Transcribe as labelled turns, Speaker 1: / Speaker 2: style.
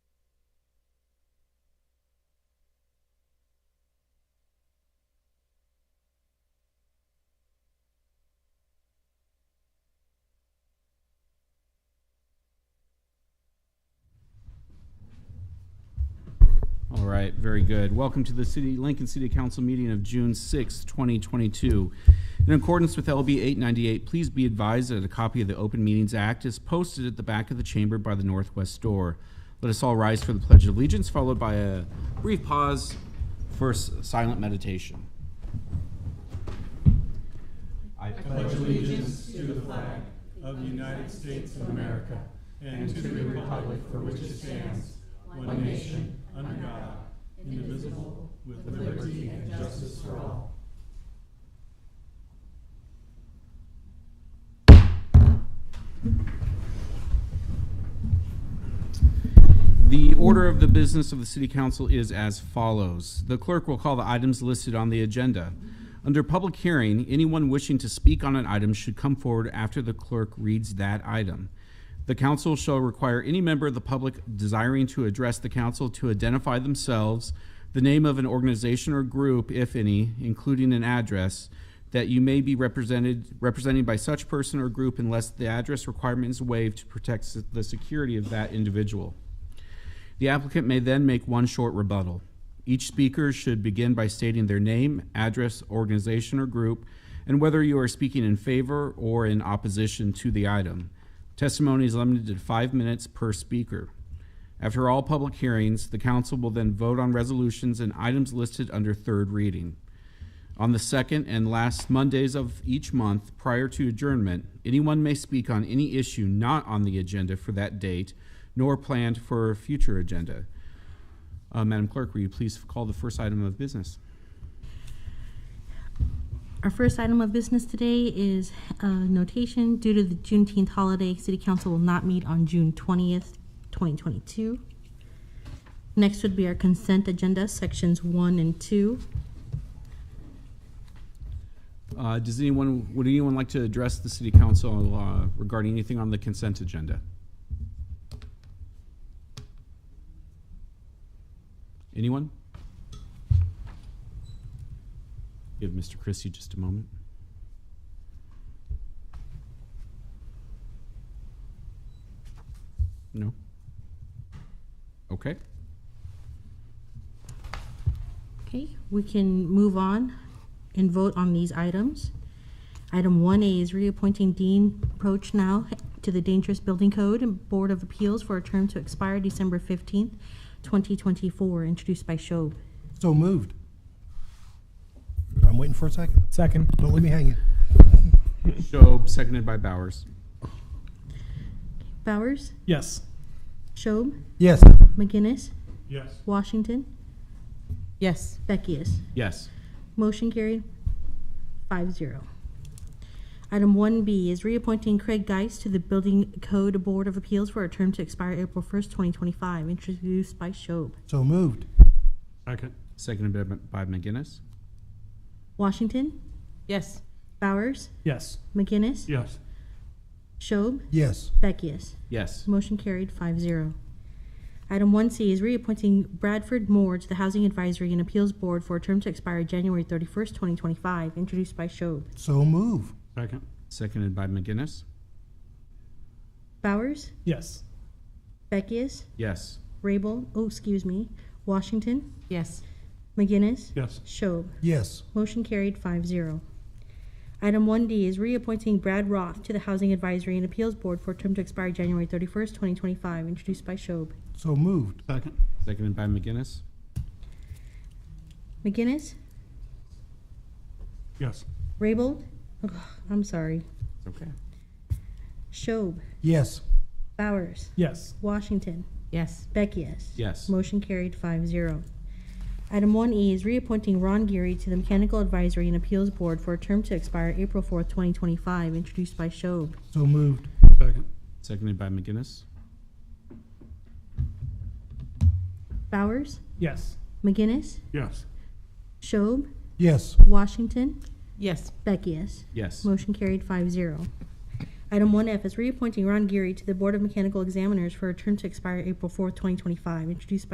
Speaker 1: right, very good. Welcome to the City, Lincoln City Council meeting of June 6, 2022. In accordance with LB 898, please be advised that a copy of the Open Meetings Act is posted at the back of the chamber by the northwest door. Let us all rise for the Pledge of Allegiance, followed by a brief pause for s- silent meditation. The order of the business of the City Council is as follows. The clerk will call the items listed on the agenda. Under public hearing, anyone wishing to speak on an item should come forward after the clerk reads that item. The council shall require any member of the public desiring to address the council to identify themselves, the name of an organization or group, if any, including an address, that you may be represented, representing by such person or group unless the address requirement is waived to protect s- the security of that individual. The applicant may then make one short rebuttal. Each speaker should begin by stating their name, address, organization, or group, and whether you are speaking in favor or in opposition to the item. Testimony is limited to five minutes per speaker. After all public hearings, the council will then vote on resolutions and items listed under third reading. On the second and last Mondays of each month prior to adjournment, anyone may speak on any issue not on the agenda for that date nor planned for a future agenda. Uh, Madam Clerk, will you please call the first item of business?
Speaker 2: Our first item of business today is uh, notation. Due to the Juneteenth holiday, City Council will not meet on June 20th, 2022. Next would be our consent agenda, Sections 1 and 2.
Speaker 1: Uh, does anyone, would anyone like to address the City Council uh, regarding anything on the consent agenda? Anyone? Give Mr. Christie just a moment. No? Okay.
Speaker 2: Okay, we can move on and vote on these items. Item 1A is reappointing Dean Proch now to the Dangerous Building Code and Board of Appeals for a term to expire December 15th, 2024, introduced by Shob.
Speaker 3: So moved. I'm waiting for a second.
Speaker 4: Second.
Speaker 3: Don't let me hang it.
Speaker 1: Shob, seconded by Bowers.
Speaker 2: Bowers?
Speaker 4: Yes.
Speaker 2: Schob,
Speaker 3: Yes.
Speaker 2: McGinnis,
Speaker 4: Yes.
Speaker 2: Washington,
Speaker 5: Yes.
Speaker 2: Beckius.
Speaker 1: Yes.
Speaker 2: Motion carried, 5-0. Item one B is reappointing Craig Geis to the Building Code Board of Appeals for a term to expire April first, twenty twenty-five, introduced by Schob.
Speaker 3: So moved.
Speaker 4: Second.
Speaker 1: Seconded by by McGinnis.
Speaker 2: Washington,
Speaker 5: Yes.
Speaker 2: Bowers,
Speaker 4: Yes.
Speaker 2: McGinnis,
Speaker 4: Yes.
Speaker 2: Schob,
Speaker 3: Yes.
Speaker 2: Beckius.
Speaker 1: Yes.
Speaker 2: Motion carried, 5-0. Item one C is reappointing Bradford Moore to the Housing Advisory and Appeals Board for a term to expire January thirty-first, twenty twenty-five, introduced by Schob.
Speaker 3: So move.
Speaker 4: Second.
Speaker 1: Seconded by McGinnis.
Speaker 2: Bowers,
Speaker 4: Yes.
Speaker 2: Beckius,
Speaker 1: Yes.
Speaker 2: Rabel, oh, excuse me, Washington,
Speaker 5: Yes.
Speaker 2: McGinnis,
Speaker 4: Yes.
Speaker 2: Shob.
Speaker 3: Yes.
Speaker 2: Motion carried 5-0. Item one D is reappointing Brad Roth to the Housing Advisory and Appeals Board for a term to expire January thirty-first, twenty twenty-five, introduced by Shob.
Speaker 3: So moved.
Speaker 4: Second.
Speaker 1: Seconded by McGinnis.
Speaker 2: McGinnis,
Speaker 4: Yes.
Speaker 2: Rabel, ugh, I'm sorry,
Speaker 1: Okay.
Speaker 2: Shob,
Speaker 3: Yes.
Speaker 2: Bowers,
Speaker 4: Yes.
Speaker 2: Washington,
Speaker 5: Yes.
Speaker 2: Beckius.
Speaker 1: Yes.
Speaker 2: Motion carried 5-0. Item one E is reappointing Ron Geary to the Mechanical Advisory and Appeals Board for a term to expire April fourth, twenty twenty-five, introduced by Shob.
Speaker 3: So moved.
Speaker 4: Second.
Speaker 1: Seconded by McGinnis.
Speaker 2: Bowers,
Speaker 4: Yes.
Speaker 2: McGinnis,
Speaker 4: Yes.
Speaker 2: Shob,
Speaker 3: Yes.
Speaker 2: Washington,
Speaker 5: Yes.
Speaker 2: Beckius.
Speaker 1: Yes.
Speaker 2: Motion carried 5-0. Item one F is reappointing Ron Geary to the Board of Mechanical Examiners for a term to expire April fourth, twenty twenty-five, introduced by